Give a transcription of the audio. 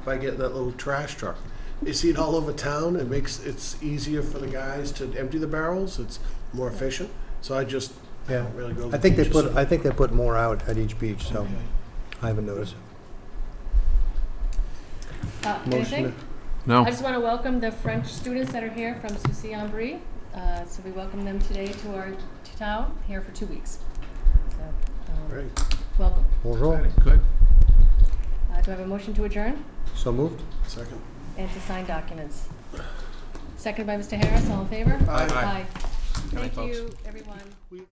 if I get that little trash truck. You see it all over town. It makes it's easier for the guys to empty the barrels. It's more efficient. So I just I Yeah. don't really go. to I think the they beaches. put, I think they put more out at each beach, so I haven't noticed. Uh, Motion anything? No. I just want to welcome the French students that are here from Soucy-en-Brie. Uh, so we welcome them today to our to town here for two weeks. So, um, Great. welcome. Bonjour, Good. Uh, do I have a motion to adjourn so moved? Second. and to sign documents? Second by Mr. Harris. All in favor? Aye. Aye. Thank folks. you, everyone.